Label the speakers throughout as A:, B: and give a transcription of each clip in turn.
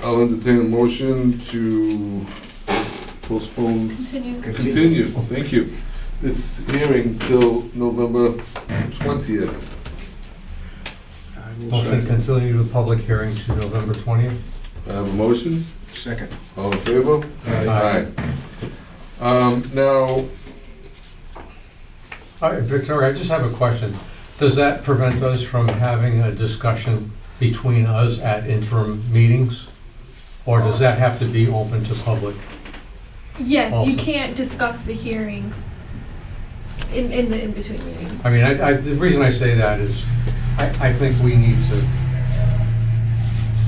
A: I'll entertain a motion to postpone,
B: Continue.
A: continue, thank you, this hearing till November twentieth.
C: Motion to continue the public hearing to November 20th.
A: I have a motion,
D: Second.
A: all in favor? Aye.
C: Aye.
A: Um, now,
C: All right, Victoria, I just have a question. Does that prevent us from having a discussion between us at interim meetings? Or does that have to be open to public?
B: Yes, you
C: Awesome.
B: can't discuss the hearing in, in the in-between meetings.
C: I mean, I, I, the reason I say that is, I, I think we need to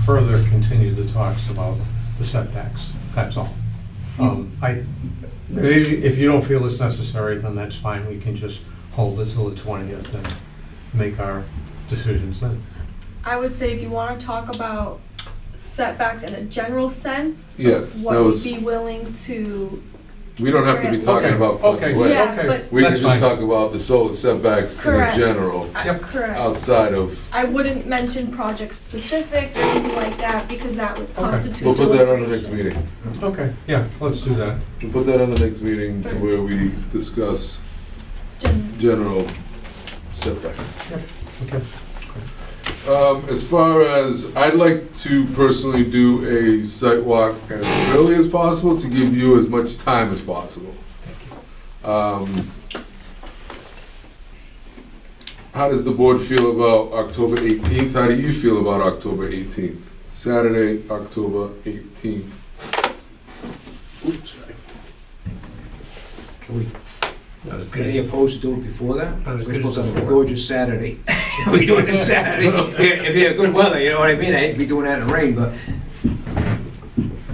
C: further continue the talks about the setbacks, that's all. Um, I, maybe if you don't feel it's necessary, then that's fine, we can just hold it till the twentieth and make our decisions then.
B: I would say if you wanna talk about setbacks in a general sense,
A: yes, that
B: what we'd
A: was,
B: be willing to,
A: we don't have to be talking
C: Okay,
A: about.
C: Okay,
A: Wait.
B: Yeah,
C: okay,
B: but-
A: We can
C: that's
A: just
C: fine.
A: talk about the solar setbacks in
B: Correct.
A: general,
B: I-
C: Yep.
B: uh, correct.
A: outside of
B: I wouldn't mention project specifics or anything like that, because that would constitute
A: We'll put that on the next
B: deliberation.
A: meeting.
C: Okay, yeah, let's do that.
A: We'll put that on the next meeting to where we discuss
B: Gen-
A: general setbacks.
C: Okay.
A: Um, as far as, I'd like to personally do a site walk as early as possible to give you as much time as possible. Um, How does the board feel about October eighteenth? How do you feel about October eighteenth? Saturday, October eighteenth.
D: Oops, sorry. Can we,
E: Not as good
D: any
E: as,
D: opposed to do it before that?
E: not
D: We're
E: as good
D: supposed
E: as
D: to
E: the
D: have a
E: four.
D: gorgeous Saturday. We do it this Saturday. It'd be a good weather, you know what I mean? eh? I hate to be doing that in the rain, but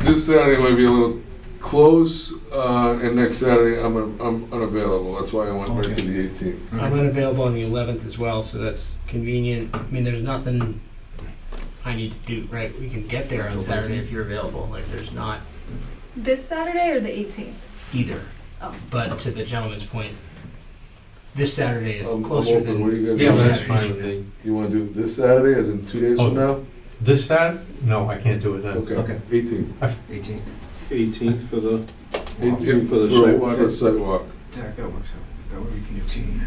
A: This Saturday might be a little close, uh, and next Saturday I'm, I'm unavailable, that's why I went right to the eighteenth.
E: I'm unavailable on the eleventh as well, so that's convenient. I mean, there's nothing I need to do, right? We can get there on Saturday if you're available. Like, there's not
B: This Saturday or the eighteenth?
E: either.
B: Oh.
E: But to the gentleman's point, this Saturday is
A: I'm- I'm
E: closer
A: open. What do you
E: than.
A: guys
C: Yeah,
A: think?
C: that's
E: Saturdays.
C: fine with me.
A: You wanna do this Saturday, as in two days from now?
C: This Saturday? No, I can't do it then.
A: Okay,
D: Okay.
A: eighteenth.
D: 18th.
F: 18th for the,
A: Eighteenth
F: For the sidewalk?
A: For the sidewalk.
D: That works out. That would be 18.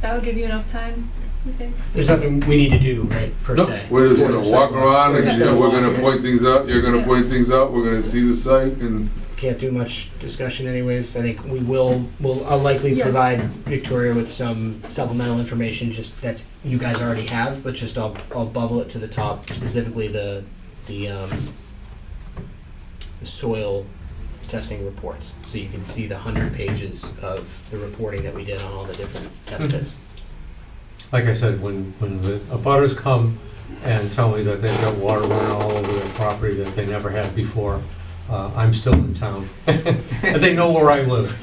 B: That would give you enough time, you think?
E: There's nothing we need to do, right, per
A: No,
E: se.
A: We're just
E: For the
A: gonna walk
E: sidewalk.
A: around, and
B: We're just
A: yeah,
E: gonna
A: we're
E: walk
A: gonna
E: it.
A: point things out, you're gonna
B: Yeah.
A: point things out, we're gonna see the site, and
E: Can't do much discussion anyways. I think we will, we'll, I'll likely
B: Yes.
E: provide Victoria with some supplemental information, just that's, you guys already have, but just I'll, I'll bubble it to the top, specifically the, the, um, the soil testing reports, so you can see the hundred pages of the reporting that we did on all the different test pits.
C: like I said, when, when the abutters come and tell me that they've got water running all over their property that they never had before, uh, I'm still in town. And they know where I live.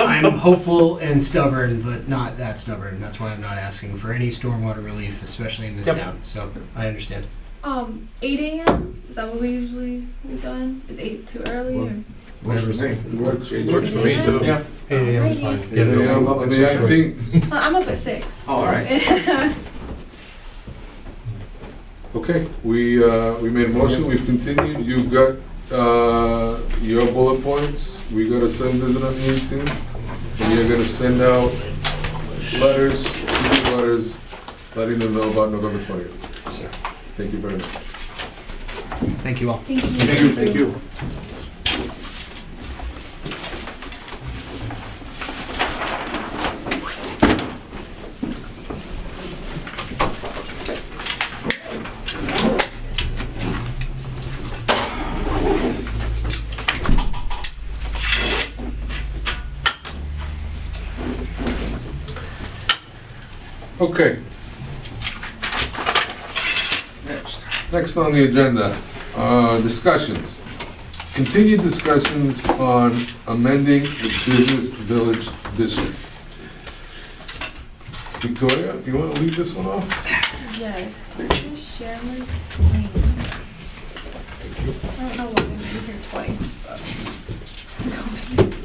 E: I'm hopeful and stubborn, but not that stubborn. That's why I'm not asking for any stormwater relief, especially in this
C: Yep.
E: town, so I understand.
B: Um, eight AM, is that what we usually, we've done? Is eight too early or?
D: Works for me.
A: Works-
B: works for me, too.
C: Yeah, eight AM is fine. Get it
A: Yeah,
C: over.
D: over.
A: and the eighteenth,
B: Uh, I'm up at six.
D: All right.
A: okay, we, uh, we made a motion, we've continued, you've got, uh, your bullet points, we gotta send this on the eighteenth, and you're gonna send out letters, two letters, letting them know about November twentieth. Thank you very much.
E: Thank you all.
B: Thank you.
A: Thank you. Thank
F: you.
A: Okay,
D: Next.
A: next on the agenda, uh, discussions. Continued discussions on amending the business village district. Victoria, you wanna leave this one off?
B: Yes, I'm gonna share my screen. I don't know why I'm in here twice, but. Um,